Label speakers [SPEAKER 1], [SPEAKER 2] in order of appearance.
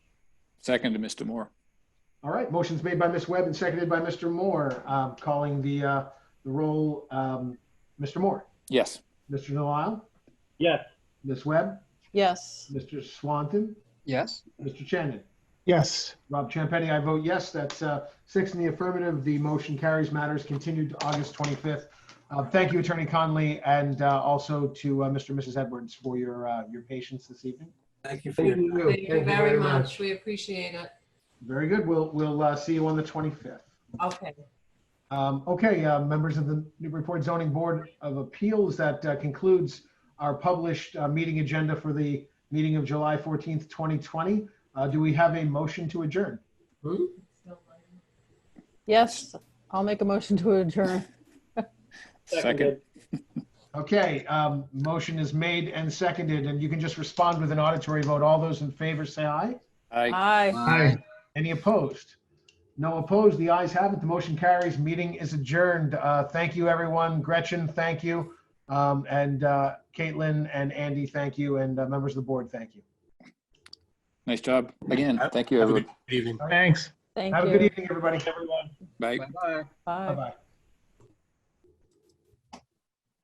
[SPEAKER 1] Second to Mr. Moore.
[SPEAKER 2] All right, motion's made by Ms. Webb and seconded by Mr. Moore. Um, Calling the, uh, the roll, um, Mr. Moore,
[SPEAKER 1] Yes.
[SPEAKER 2] Mr. Delisle,
[SPEAKER 3] Yes.
[SPEAKER 2] Ms. Webb,
[SPEAKER 4] Yes.
[SPEAKER 2] Mr. Swanton,
[SPEAKER 5] Yes.
[SPEAKER 2] Mr. Shannon.
[SPEAKER 5] Yes.
[SPEAKER 2] Rob Champetti, I vote yes. That's uh, six in the affirmative. The motion carries matters continued to August 25th. Uh, Thank you, Attorney Conley, and uh, also to uh, Mr. and Mrs. Edwards for your, uh, your patience this evening.
[SPEAKER 6] Thank you for your
[SPEAKER 3] Thank
[SPEAKER 6] time.
[SPEAKER 3] you.
[SPEAKER 4] Thank you very much. We appreciate it.
[SPEAKER 2] Very good. We'll, we'll uh, see you on the 25th.
[SPEAKER 4] Okay.
[SPEAKER 2] Um, okay, uh, members of the Newburyport Zoning Board of Appeals, that uh, concludes our published uh, meeting agenda for the meeting of July 14th, 2020. Uh, do we have a motion to adjourn?
[SPEAKER 4] Yes, I'll make a motion to adjourn.
[SPEAKER 1] Second.
[SPEAKER 2] Okay, um, motion is made and seconded, and you can just respond with an auditory vote. All those in favor say aye.
[SPEAKER 1] Aye.
[SPEAKER 4] Aye.
[SPEAKER 5] Aye.
[SPEAKER 2] Any opposed? No opposed. The ayes have it. The motion carries. Meeting is adjourned. Uh, thank you, everyone. Gretchen, thank you. Um, and uh, Caitlin and Andy, thank you. And uh, members of the board, thank you.
[SPEAKER 1] Nice job. Again, thank you,
[SPEAKER 6] Have a
[SPEAKER 1] everyone.
[SPEAKER 6] good evening.
[SPEAKER 5] Thanks.
[SPEAKER 4] Thank
[SPEAKER 2] Have a good
[SPEAKER 4] you.
[SPEAKER 2] evening, everybody.
[SPEAKER 3] Everyone.
[SPEAKER 1] Bye.
[SPEAKER 5] Bye-bye.
[SPEAKER 4] Bye.
[SPEAKER 2] Bye-bye.